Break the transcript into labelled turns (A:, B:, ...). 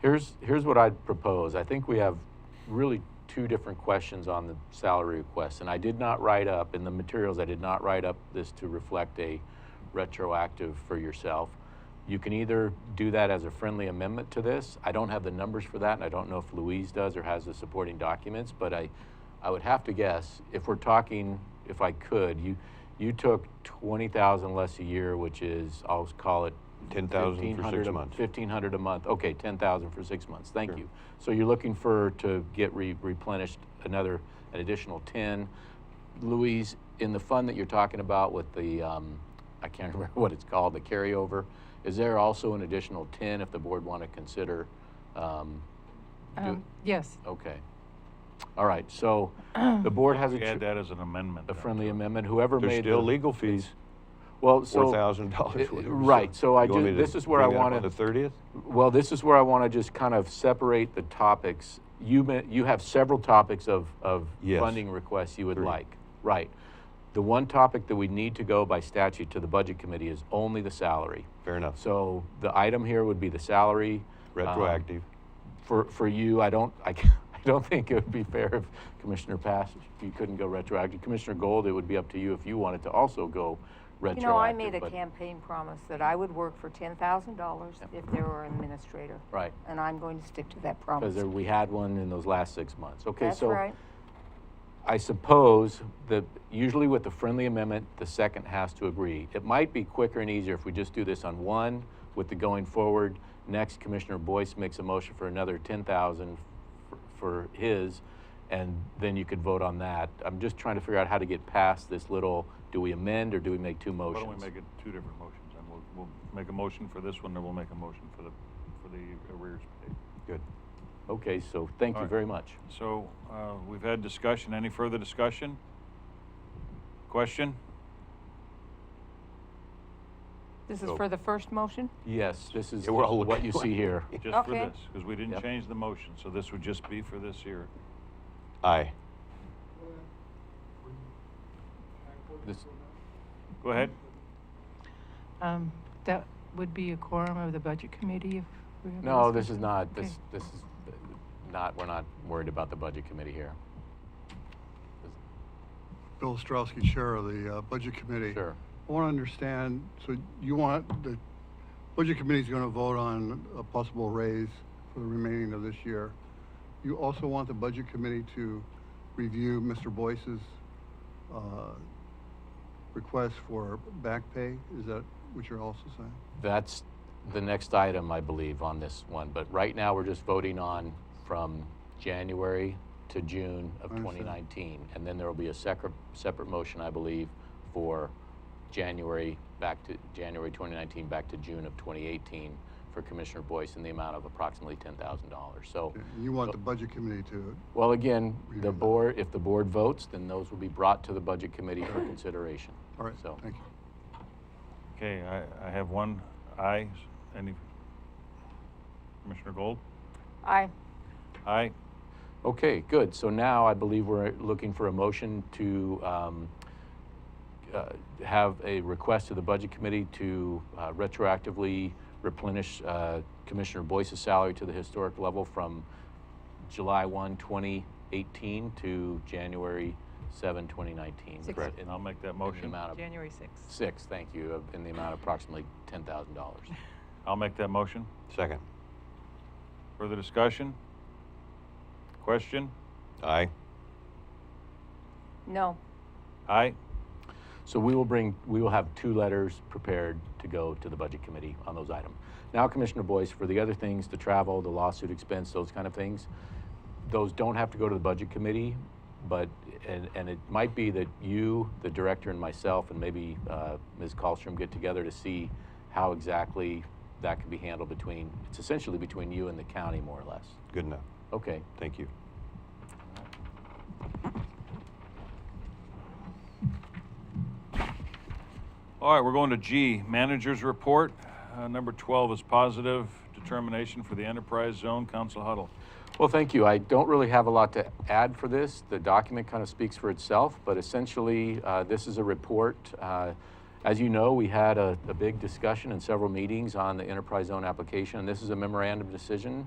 A: Here's, here's what I'd propose. I think we have really two different questions on the salary request, and I did not write up, in the materials, I did not write up this to reflect a retroactive for yourself. You can either do that as a friendly amendment to this. I don't have the numbers for that, and I don't know if Louise does or has the supporting documents, but I, I would have to guess, if we're talking, if I could, you, you took twenty thousand less a year, which is, I'll call it
B: 10,000 for
A: 1,500
B: six
A: a-
B: months.
A: 1,500 a month, okay, 10,000 for six months, thank you. So you're looking for, to get re- replenished another, an additional 10. Louise, in the fund that you're talking about with the, um, I can't remember what it's called, the carryover, is there also an additional 10 if the board want to consider? um, do-
C: Um, Yes,
A: Okay. All right, so the board has a
D: We had
A: tr-
D: that as an amendment.
A: a
D: then.
A: friendly amendment, whoever
B: There's
A: made the...
B: still legal fees,
A: Well,
B: four
A: so...
B: thousand dollars.
A: it- right, so I do- this is where I wanted-
B: On the thirtieth?
A: Well, this is where I want to just kind of separate the topics. You, ma- you have several topics of, of
B: Yes.
A: funding requests you would like. Right. The one topic that we need to go by statute to the budget committee is only the salary.
B: Fair enough.
A: So the item here would be the salary. Um,
B: Retroactive.
A: For, for you, I don't, I, ca- I don't think it would be fair if Commissioner Pass, if you couldn't go retroactive. Commissioner Gold, it would be up to you if you wanted to also go
E: You
A: retroactive.
E: know, I made a
A: but-
E: campaign promise that I would work for ten thousand dollars if there were an administrator,
A: Right,
E: and I'm going to stick to that
A: because
E: promise.
A: we had one in those last six months. Okay,
E: That's
A: so.
E: right.
A: I suppose that usually with the friendly amendment, the second has to agree. It might be quicker and easier if we just do this on one with the going forward. Next, Commissioner Boyce makes a motion for another ten thousand for his, and then you could vote on that. I'm just trying to figure out how to get past this little, do we amend or do we make two
D: Why
A: motions?
D: don't we make it two different motions, and we'll, we'll make a motion for this one, and we'll make a motion for the, for the arrears pay.
B: Good.
A: Okay, so thank
D: All
A: you
D: right.
A: very much.
D: So, uh, we've had discussion, any further discussion? Question?
C: this is
B: So-
C: for the first motion?
A: Yes, this is
B: Yeah, we're all
A: what
B: looking
A: you
B: like-
A: see here.
D: Just for
E: Okay.
D: this, because we didn't
A: Yep.
D: change the motion, so this would just be for this year.
B: Aye.
A: This-
D: Go ahead.
C: Um, That would be a quorum of the budget committee if we have. a
A: No, this
C: discussion?
A: is not,
C: Okay.
A: this, this is uh, not, we're not worried about the budget committee here.
F: Bill Ostrowski, Chair of the uh, Budget Committee.
A: Sure.
F: I want to understand, so you want, the Budget Committee's going to vote on a possible raise for the remaining of this year. You also want the Budget Committee to review Mr. Boyce's uh, request for back pay? Is that what you're also saying?
A: That's the next item, I believe, on this one, but right now, we're just voting on from January to June of
F: Understood.
A: 2019. And then there will be a separate, separate motion, I believe, for January, back to, January 2019, back to June of 2018 for Commissioner Boyce in the amount of approximately $10,000. So,
F: And You want the Budget Committee to,
A: well, again,
F: We
A: the
F: did that.
A: board, if the board votes, then those will be brought to the Budget Committee for consideration.
F: all right,
A: So-
F: thank you.
D: Okay, I, I have one, aye, any? Commissioner Gold?
E: I,
D: Aye,
A: Okay, good. So now I believe we're looking for a motion to um, uh, have a request to the Budget Committee to uh, retroactively replenish uh, Commissioner Boyce's salary to the historic level from July 1, 2018 to January 7, 2019.
C: Six.
A: Correct.
D: and I'll make that
A: In the
D: motion.
A: amount of,
C: January 6th.
A: six, thank you, of- in the amount of approximately $10,000.
D: I'll make that motion.
B: Second.
D: Further discussion? Question?
B: Aye.
E: no,
D: Aye?
A: So we will bring, we will have two letters prepared to go to the Budget Committee on those items. Now, Commissioner Boyce, for the other things, the travel, the lawsuit expense, those kind of things, those don't have to go to the Budget Committee, but, and, and it might be that you, the director, and myself, and maybe uh, Ms. Colstrom get together to see how exactly that could be handled between, it's essentially between you and the county, more or less.
B: Good enough.
A: Okay,
B: Thank you.
D: All right, we're going to G, Manager's Report. Uh, Number 12 is positive determination for the enterprise zone, Council Huddle.
A: Well, thank you. I don't really have a lot to add for this. The document kind of speaks for itself, but essentially, uh, this is a report. Uh, as you know, we had a, a big discussion and several meetings on the enterprise zone application, and this is a memorandum decision